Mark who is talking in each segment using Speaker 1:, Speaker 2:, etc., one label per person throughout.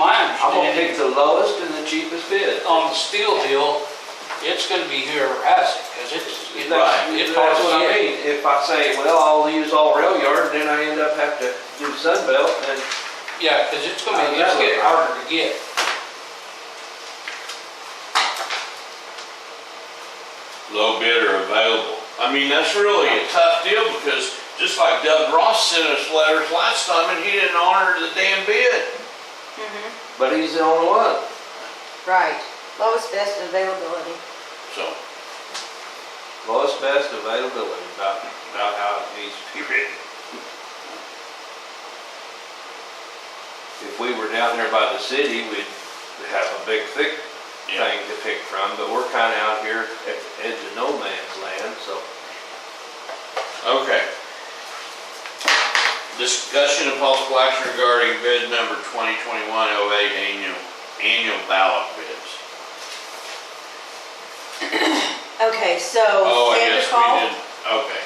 Speaker 1: I'm gonna
Speaker 2: And
Speaker 1: pick the lowest and the cheapest bid.
Speaker 2: on the steel deal, it's gonna be here harassing, because it's, it's, it's
Speaker 1: That's what I
Speaker 2: hard to
Speaker 1: mean, if I say, well, I'll use all rail yard, then I end up having to do Sunbelt, and
Speaker 2: Yeah, because it's gonna
Speaker 1: I
Speaker 2: be, it's
Speaker 1: know.
Speaker 2: getting harder to get.
Speaker 3: low bidder available. I mean, that's really a tough deal because just like Doug Ross sent us letters last time and he didn't honor the damn bid.
Speaker 1: but he's the only one.
Speaker 4: Right, lowest best availability.
Speaker 3: So,
Speaker 1: Lowest best availability.
Speaker 3: about, about how it needs to be written.
Speaker 1: If we were down there by the city, we'd have a big thick thing to pick from, but we're kinda out here at the edge of no man's land, so.
Speaker 3: Okay. Discussion of possible action regarding bid number 2021-08 annual, annual ballot bids.
Speaker 4: Okay, so
Speaker 3: Oh, I
Speaker 4: Sandra
Speaker 3: guess we
Speaker 4: called?
Speaker 3: didn't, okay.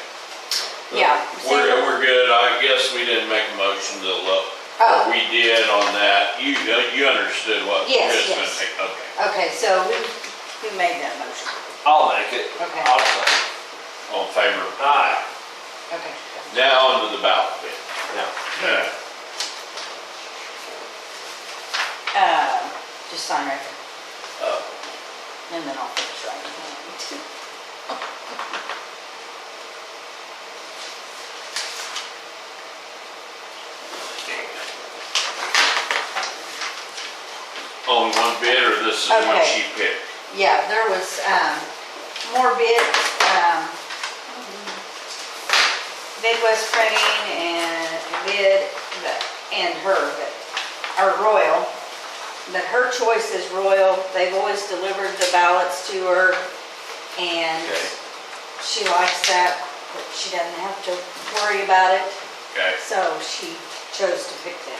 Speaker 4: Yeah,
Speaker 3: We're,
Speaker 4: Sandra,
Speaker 3: we're good. I guess we didn't make a motion to look. What
Speaker 4: Oh.
Speaker 3: we did on that, you, uh, you understood what.
Speaker 4: Yes,
Speaker 3: Chris
Speaker 4: yes.
Speaker 3: was saying. Okay.
Speaker 4: okay, so who, who made that motion?
Speaker 1: I'll make it.
Speaker 4: Okay,
Speaker 3: All in favor?
Speaker 1: Aye.
Speaker 4: okay.
Speaker 3: Now onto the ballot bid.
Speaker 1: Now,
Speaker 3: Yeah.
Speaker 4: Uh, just sign right here,
Speaker 3: Uh,
Speaker 4: and then I'll finish writing.
Speaker 3: Only one bid or this is one
Speaker 4: Okay.
Speaker 3: she picked?
Speaker 4: Yeah, there was, um, more bids, um, Midwest Printing and bid, but- and her, but, or Royal. But her choice is Royal, they've always delivered the ballots to her, and
Speaker 3: Okay.
Speaker 4: she likes that, but she doesn't have to worry about it,
Speaker 3: Okay.
Speaker 4: so she chose to pick them.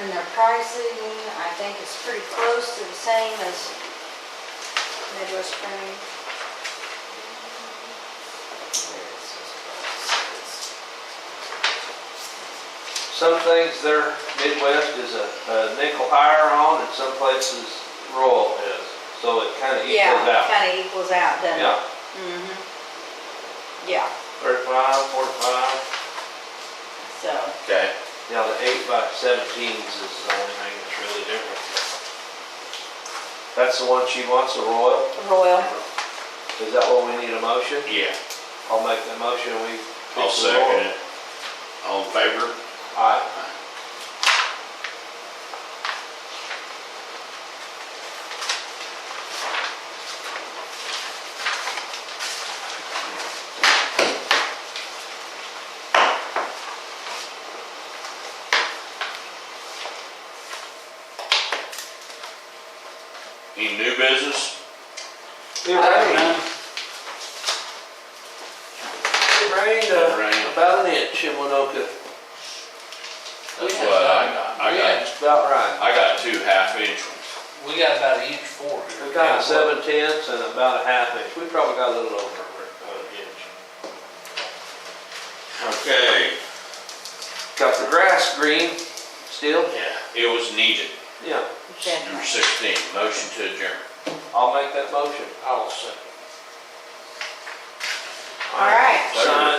Speaker 4: And their pricing, I think is pretty close to the same as Midwest Printing. Where is this price?
Speaker 1: some things there, Midwest is a a nickel higher on, and some places Royal is, so it kinda equals
Speaker 4: Yeah,
Speaker 1: out.
Speaker 4: kinda equals out, doesn't it?
Speaker 1: Yeah,
Speaker 4: Mm-hmm. Yeah,
Speaker 1: thirty-five, forty-five.
Speaker 4: so,
Speaker 3: Okay.
Speaker 1: Now, the eight by seventeens is the only thing that's really different. That's the one she wants, the Royal?
Speaker 4: Royal,
Speaker 1: Is that what we need a motion?
Speaker 3: Yeah.
Speaker 1: I'll make the motion, we.
Speaker 3: I'll
Speaker 1: fix the Royal.
Speaker 3: second it. All in favor?
Speaker 1: Aye.
Speaker 3: Any new business?
Speaker 1: It rained,
Speaker 2: I
Speaker 1: it rained
Speaker 3: It
Speaker 1: uh,
Speaker 3: rained.
Speaker 1: about an inch in Winoka,
Speaker 3: That's what I got. I got,
Speaker 1: about right.
Speaker 3: I got two half inch ones.
Speaker 2: don't know. We got about an inch four here.
Speaker 1: We got
Speaker 2: Yeah,
Speaker 1: a seven tenths and about a half inch, we probably got a little over an inch.
Speaker 3: Okay.
Speaker 1: Got the grass green still,
Speaker 3: Yeah, it was needed.
Speaker 1: yeah,
Speaker 3: Number
Speaker 4: definitely.
Speaker 3: sixteen, motion to adjourn.
Speaker 1: I'll make that motion.
Speaker 2: I will say.
Speaker 4: All right.
Speaker 1: Sign